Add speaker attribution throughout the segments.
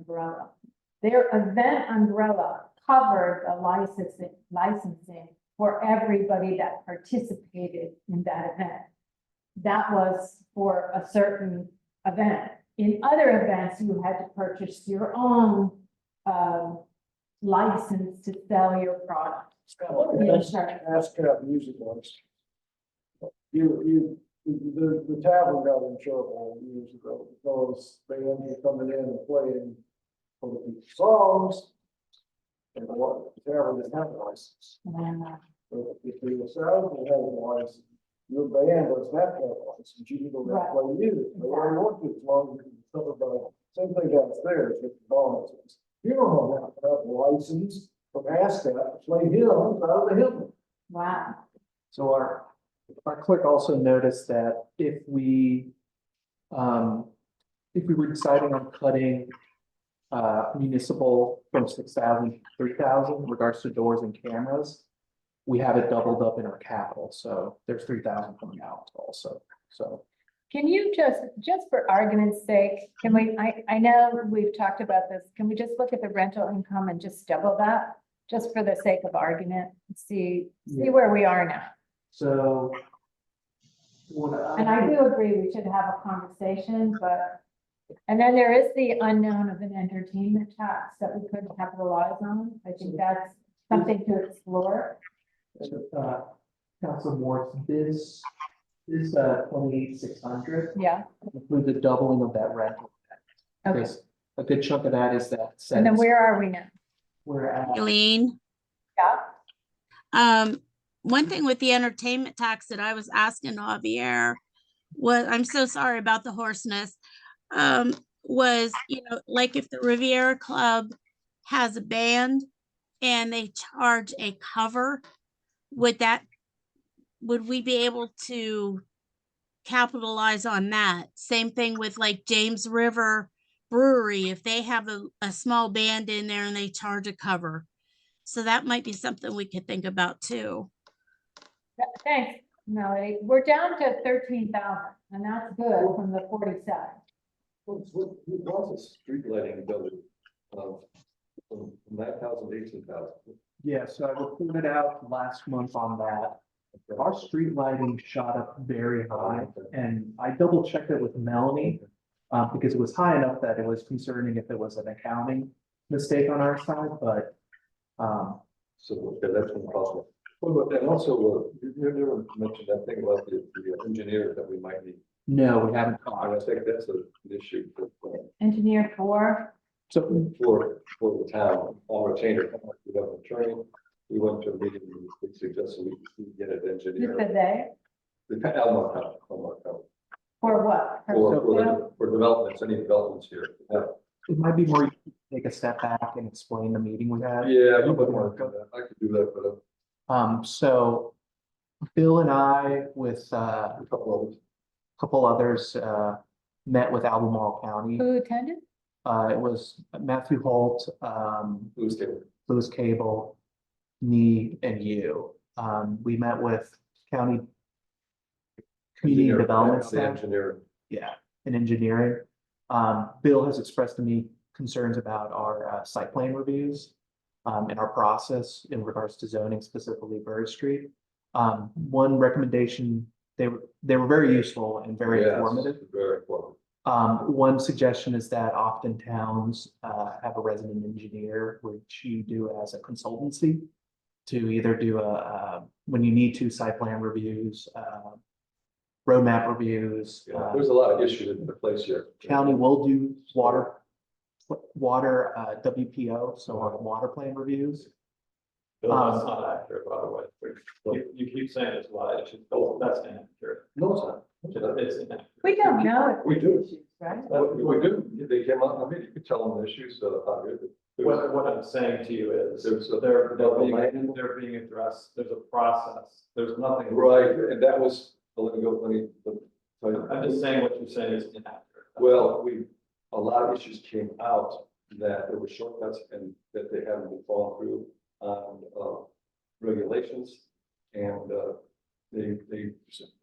Speaker 1: umbrella. Their event umbrella covered the licensing, licensing for everybody that participated in that event. That was for a certain event. In other events, you had to purchase your own, um, license to sell your product.
Speaker 2: Let's Ask how the music was. You, you, the, the tavern got in trouble years ago because they ended up coming in and playing some of these songs. And the one, the tavern didn't have a license.
Speaker 1: And, uh,
Speaker 2: So If they were sound, they had a license. Your band doesn't have to have a license. You can go there and play music. They already want to, as long as you can tell about, same thing downstairs with the dogs. You don't have to have a license from ASCAP to play hymns out of the hymn.
Speaker 1: Wow,
Speaker 3: So our, our clerk also noticed that if we, um, if we were deciding on cutting uh, municipal from six thousand to three thousand in regards to doors and cameras, we have it doubled up in our capital, so there's three thousand coming out also, so.
Speaker 1: can you just, just for argument's sake, can we, I, I know we've talked about this, can we just look at the rental income and just double that? Just for the sake of argument, see, see where we are now.
Speaker 3: So. What I.
Speaker 1: And I do agree, we should have a conversation, but, and then there is the unknown of an entertainment tax that we could capitalize on. I think that's something to explore.
Speaker 3: Uh, Council Morris, this, this, uh, twenty-eight, six hundred.
Speaker 1: Yeah,
Speaker 3: include the doubling of that rental.
Speaker 1: okay.
Speaker 3: Because a good chunk of that is that.
Speaker 1: And then
Speaker 3: sentence
Speaker 1: where are we now?
Speaker 3: We're at,
Speaker 4: Eileen,
Speaker 1: Yeah,
Speaker 4: um, one thing with the entertainment tax that I was asking Javier was, I'm so sorry about the hoarseness. Um, was, you know, like if the Riviera Club has a band and they charge a cover, would that, would we be able to capitalize on that? Same thing with like James River Brewery, if they have a, a small band in there and they charge a cover. So that might be something we could think about too.
Speaker 1: Th- thanks, Melody. We're down to thirteen thousand, and that's good from the forty-seven.
Speaker 5: What's, what, who wants a street lighting building, um, from nine thousand to eighteen thousand?
Speaker 3: yeah, so I reported out last month on that. Our street lighting shot up very high and I double checked it with Melanie. Uh, because it was high enough that it was concerning if it was an accounting mistake on our side, but. Um,
Speaker 5: So, okay, that's impossible. What about that, also, uh, you, you never mentioned that thing about the, the uh, engineer that we might need,
Speaker 3: no, we haven't
Speaker 5: I
Speaker 3: caught.
Speaker 5: would think that's a- an issue for, for-
Speaker 1: Engineer four,
Speaker 3: So
Speaker 5: for, for the town, on retainer, we have an attorney. We went to a meeting, and we suggested we we get an
Speaker 1: who
Speaker 5: engineer,
Speaker 1: said they,
Speaker 5: the, Elmore County, Elmore County,
Speaker 1: for what? For-
Speaker 5: for, for, the- for developments, any developments here, yeah.
Speaker 3: it might be more, to take a step back and explain the meeting we had.
Speaker 5: Yeah, but more, I could do that, but uh, a
Speaker 3: Um, so Bill and I with uh, a
Speaker 5: couple of,
Speaker 3: couple others uh, met with Albemarle County.
Speaker 1: Who attended?
Speaker 3: Uh, it was Matthew Holt, um,
Speaker 5: who's there?
Speaker 3: Louis Cable, me and you. Um, we met with county community
Speaker 5: Engineer,
Speaker 3: development
Speaker 5: that's The
Speaker 3: staff,
Speaker 5: engineer,
Speaker 3: yeah, and engineering. Um, Bill has expressed to me concerns about our uh, site plan reviews um, and our process in regards to zoning specifically Bird Street. Um, one recommendation, they were, they were very useful and very
Speaker 5: Yes,
Speaker 3: informative.
Speaker 5: Very informative.
Speaker 3: Um, one suggestion is that often towns, uh, have a resident engineer, which you do as a consultancy. To either do a, uh, when you need to site plan reviews, uh, roadmap reviews.
Speaker 5: Yeah,
Speaker 3: uh,
Speaker 5: There's a lot of issues in the place here.
Speaker 3: County will do water, water, uh, WPO, so our water plan reviews.
Speaker 6: Bill, that's
Speaker 3: Um,
Speaker 6: not accurate, by the way. You, you keep saying it's a lot of issues, Bill, that's inaccurate.
Speaker 5: No, it's not.
Speaker 6: It's inaccurate.
Speaker 1: We don't know. if
Speaker 5: We do.
Speaker 1: issues, Right?
Speaker 5: What we do, they came out, I mean, you could tell them the issues, uh, how good.
Speaker 6: What, what I'm saying to you is,
Speaker 5: There's uh, a-
Speaker 6: they're, they're being,
Speaker 5: Land.
Speaker 6: they're being addressed, there's a process, there's nothing.
Speaker 5: Right, and that was, let me go, let me. let me-
Speaker 6: I'm just saying what you're saying is inaccurate.
Speaker 5: Well, we, a lot of issues came out that there were shortcuts and that they haven't been following through on uh, regulations. And uh, they, they,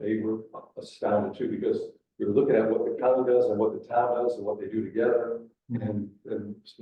Speaker 5: they were astounded too, Mm-hmm. because we were looking at what the county does and what the town does and what they do together. And, and